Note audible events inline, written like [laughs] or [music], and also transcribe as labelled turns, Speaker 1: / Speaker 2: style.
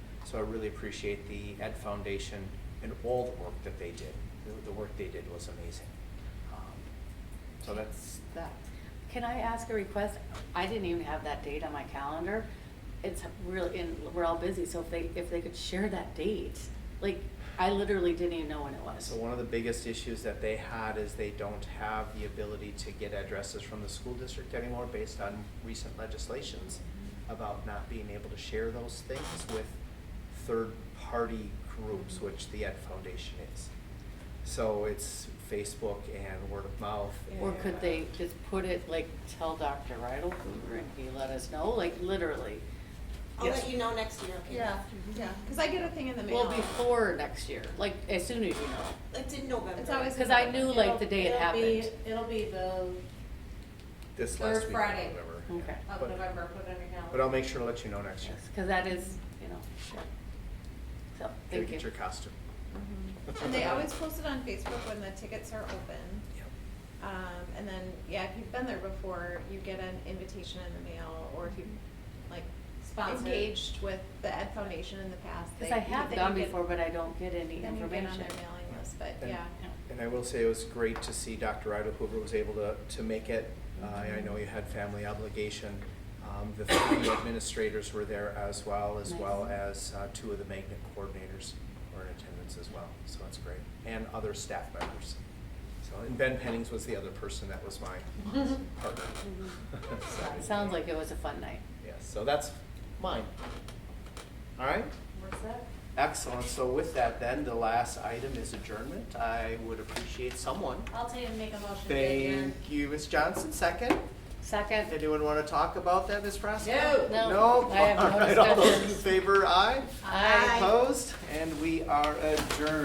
Speaker 1: So I really appreciate the Ed Foundation and all the work that they did. The- The work they did was amazing. Um, So that's,
Speaker 2: that. Can I ask a request? I didn't even have that date on my calendar. It's really, and we're all busy, so if they, if they could share that date, like, I literally didn't even know when it was.
Speaker 1: So one of the biggest issues that they had is they don't have the ability to get addresses from the school district anymore based on recent legislations about not being able to share those things with third-party groups, which the Ed Foundation is. So it's Facebook and word of mouth.
Speaker 2: Or could
Speaker 1: and- uh,
Speaker 2: they just put it, like, tell Dr. Rydell,
Speaker 1: Mm-hmm.
Speaker 2: and he let us know, like, literally?
Speaker 3: I'll
Speaker 1: Yes.
Speaker 3: let you know next year, okay?
Speaker 4: Yeah, yeah, because I get a thing in the mail.
Speaker 2: Well, before next year, like, as soon as you know.
Speaker 3: It's in November.
Speaker 4: It's always.
Speaker 2: Because I knew, like, the day it
Speaker 4: It'll- it'll be-
Speaker 2: happened.
Speaker 4: It'll be the,
Speaker 1: This
Speaker 4: Third
Speaker 1: last week of
Speaker 4: Friday.
Speaker 1: November.
Speaker 2: Okay.
Speaker 4: of
Speaker 1: But-
Speaker 4: November, put it on your calendar.
Speaker 1: But I'll make sure to let you know next year.
Speaker 2: Because that is, you know, sure. So,
Speaker 1: Gotta
Speaker 2: thank you.
Speaker 1: get your costume.
Speaker 4: Mhm. And they always post it on Facebook when the tickets are open.
Speaker 1: Yep.
Speaker 4: Um, and then, yeah, if you've been there before, you get an invitation in the mail, or if you, like,
Speaker 3: Sponsored.
Speaker 4: engaged with the Ed Foundation in the past.
Speaker 2: Because
Speaker 4: they-
Speaker 2: I have
Speaker 4: then
Speaker 2: gone
Speaker 4: you get-
Speaker 2: before, but I don't get any
Speaker 4: Then you get on
Speaker 2: information.
Speaker 4: their mailing list, but
Speaker 1: And-
Speaker 4: yeah.
Speaker 1: And I will say it was great to see Dr. Ida Hoover was able to, to make it. Uh, I
Speaker 2: Mm-hmm.
Speaker 1: know you had family obligation. Um, the three
Speaker 2: [coughs]
Speaker 1: administrators were there as well, as well as, uh, two of the magnet coordinators were in attendance as well, so that's great. And other staff members. So, and Ben Pennings was the other person that was
Speaker 2: [laughs]
Speaker 1: my partner.
Speaker 2: Mm-hmm.
Speaker 1: [laughs] So-
Speaker 2: It Sounds like it was a fun night.
Speaker 1: Yes, so that's mine. All right?
Speaker 2: What's that?
Speaker 1: Excellent. So with that then, the last item is adjournment. I would appreciate someone.
Speaker 4: I'll tell you to make a motion.
Speaker 1: Thank you, Ms. Johnson, second.
Speaker 2: Second,
Speaker 1: Anyone want to talk about that, Ms. Frasco?
Speaker 2: No.
Speaker 4: No.
Speaker 1: No?
Speaker 2: I have no
Speaker 1: All right, all those in
Speaker 2: discussions.
Speaker 1: favor, aye?
Speaker 2: I.
Speaker 1: Opposed? And we are adjourned.